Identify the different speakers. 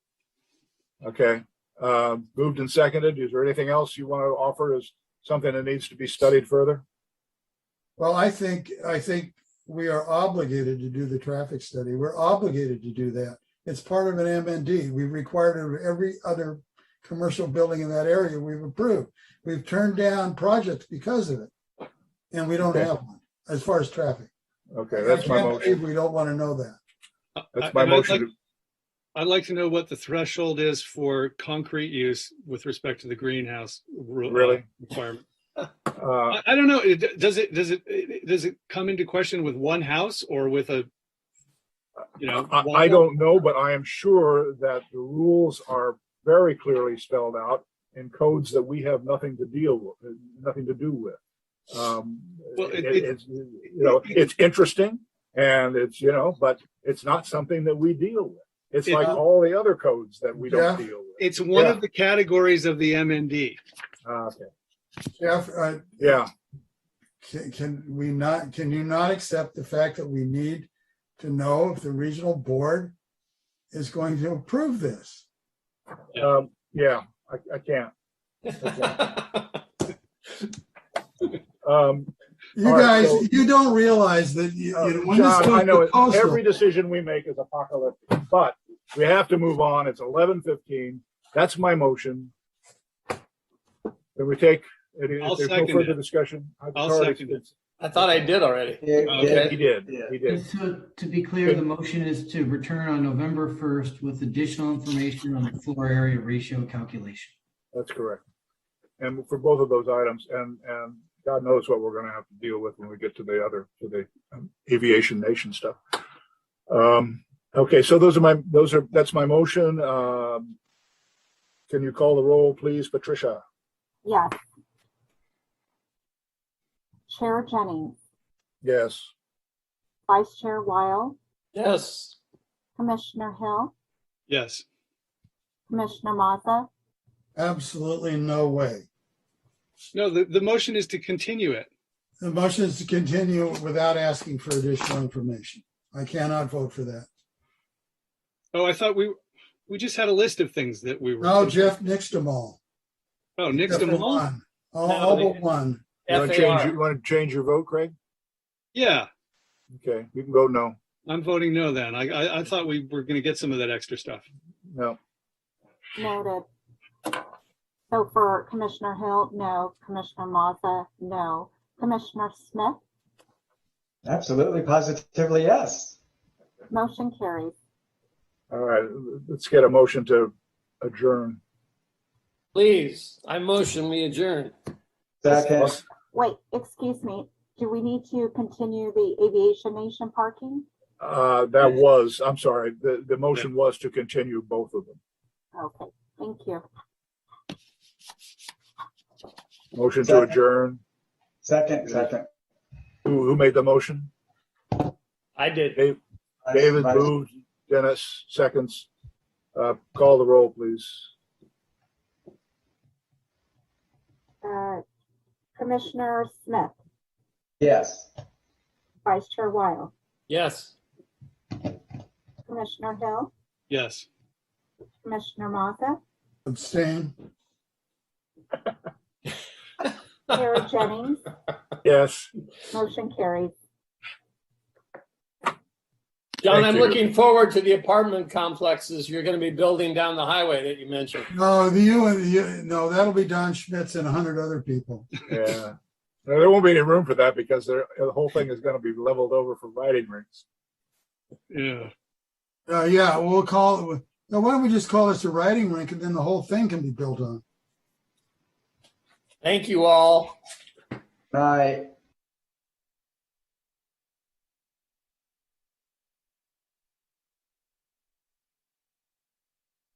Speaker 1: Okay, uh, moved and seconded. Is there anything else you want to offer as something that needs to be studied further?
Speaker 2: Well, I think, I think we are obligated to do the traffic study. We're obligated to do that. It's part of an MND. We required it of every other commercial building in that area we've approved. We've turned down projects because of it. And we don't
Speaker 1: Okay.
Speaker 2: have one as far as traffic.
Speaker 1: Okay, that's
Speaker 2: I
Speaker 1: my
Speaker 2: can't
Speaker 1: motion.
Speaker 2: believe We don't want to know that.
Speaker 1: That's
Speaker 3: I-
Speaker 1: my
Speaker 3: and I'd
Speaker 1: motion.
Speaker 3: like- I'd like to know what the threshold is for concrete use with respect to the greenhouse. ru- uh,
Speaker 1: Really?
Speaker 3: Requirement.
Speaker 1: to- Uh,
Speaker 3: I, I don't know. It- Does it, does it, does it come into question with one house or with a, you know?
Speaker 1: I, I
Speaker 3: one-
Speaker 1: don't know, but I am sure that the rules are very clearly spelled out in codes that we have nothing to deal with, nothing to do with. Um,
Speaker 3: Well,
Speaker 1: it-
Speaker 3: it-
Speaker 1: it-
Speaker 3: it-
Speaker 1: it's, you know, it's interesting and it's, you know, but it's not something that we deal with. It's
Speaker 3: It-
Speaker 1: like all the other codes that we don't
Speaker 2: Yeah.
Speaker 1: deal with.
Speaker 3: It's one
Speaker 1: Yeah.
Speaker 3: of the categories of the MND.
Speaker 1: Uh, okay.
Speaker 2: Jeff, uh,
Speaker 1: Yeah,
Speaker 2: can, can we not, can you not accept the fact that we need to know if the regional board is going to approve this?
Speaker 3: Yeah.
Speaker 1: um, yeah, I, I can't. Um,
Speaker 2: You
Speaker 1: All right,
Speaker 2: guys,
Speaker 1: so- Oh,
Speaker 2: you don't realize that you, you know, when this
Speaker 1: John, I
Speaker 2: goes
Speaker 1: know
Speaker 2: to
Speaker 1: it-
Speaker 2: coastal,
Speaker 1: every decision we make is apocalyptic, but we have to move on. It's eleven fifteen. That's my motion. Can we take, if
Speaker 3: I'll
Speaker 1: there's no
Speaker 3: second
Speaker 1: further
Speaker 3: it.
Speaker 1: discussion? I've
Speaker 3: I'll
Speaker 1: already-
Speaker 3: second it.
Speaker 4: I thought I did already.
Speaker 1: Yeah,
Speaker 3: Okay.
Speaker 1: He did,
Speaker 4: Yeah.
Speaker 1: he did.
Speaker 5: So to be clear, the motion is to return on November 1st with additional information on the floor area ratio calculation.
Speaker 1: That's correct. And for both of those items, and, and God knows what we're gonna have to deal with when we get to the other, to the um, aviation nation stuff. Um, okay, so those are my, those are, that's my motion. Um, can you call the roll, please, Patricia?
Speaker 6: Yes. Chair Jennings,
Speaker 1: Yes.
Speaker 6: Vice Chair Wile,
Speaker 4: Yes.
Speaker 6: Commissioner Hill,
Speaker 3: Yes.
Speaker 6: Commissioner Maza,
Speaker 2: absolutely no way.
Speaker 3: No, the, the motion is to continue it.
Speaker 2: The motion is to continue without asking for additional information. I cannot vote for that.
Speaker 3: Oh, I thought we, we just had a list of things that we were.
Speaker 2: No, Jeff nixed them all.
Speaker 3: Oh, next to
Speaker 2: Except for
Speaker 3: all?
Speaker 2: one. All,
Speaker 4: No,
Speaker 2: all
Speaker 4: they
Speaker 2: but
Speaker 4: didn't.
Speaker 2: one.
Speaker 1: You want to change, you
Speaker 4: FAR.
Speaker 1: want to change your vote, Craig?
Speaker 3: Yeah.
Speaker 1: Okay, you can go no,
Speaker 3: I'm voting no then. I, I, I thought we were going to get some of that extra stuff.
Speaker 1: no.
Speaker 6: noted. So for Commissioner Hill, no. Commissioner Maza, no. Commissioner Smith,
Speaker 7: Absolutely, positively, yes.
Speaker 6: motion carries.
Speaker 1: All right, let's get a motion to adjourn.
Speaker 4: Please, I motion we adjourn.
Speaker 7: Second,
Speaker 6: Wait, excuse me, do we need to continue the Aviation Nation parking?
Speaker 1: Uh, that was, I'm sorry, the, the motion was to continue both of them.
Speaker 6: Okay, thank you.
Speaker 1: Motion to
Speaker 7: Second.
Speaker 1: adjourn.
Speaker 7: second, second.
Speaker 1: Who, who made the motion?
Speaker 4: I did.
Speaker 1: David
Speaker 7: Vice-
Speaker 1: moved, Dennis seconds. Uh, call the roll, please.
Speaker 6: Uh, Commissioner Smith,
Speaker 7: Yes.
Speaker 6: Vice Chair Wile,
Speaker 4: Yes.
Speaker 6: Commissioner Hill,
Speaker 3: Yes.
Speaker 6: Commissioner Maza,
Speaker 2: Abstain.
Speaker 6: Chair Jennings,
Speaker 1: Yes.
Speaker 6: motion carries.
Speaker 4: John,
Speaker 1: Thank
Speaker 4: I'm
Speaker 1: you.
Speaker 4: looking forward to the apartment complexes you're going to be building down the highway that you mentioned.
Speaker 2: No, the you and you, no, that'll be Don Schmitz and a hundred other people.
Speaker 1: Yeah. No, There won't be any room for that because there, the whole thing is gonna be leveled over for riding rings.
Speaker 3: Yeah.
Speaker 2: Uh, yeah, we'll call it, now why don't we just call this a writing rink and then the whole thing can be built on?
Speaker 4: Thank you all.
Speaker 7: Aye.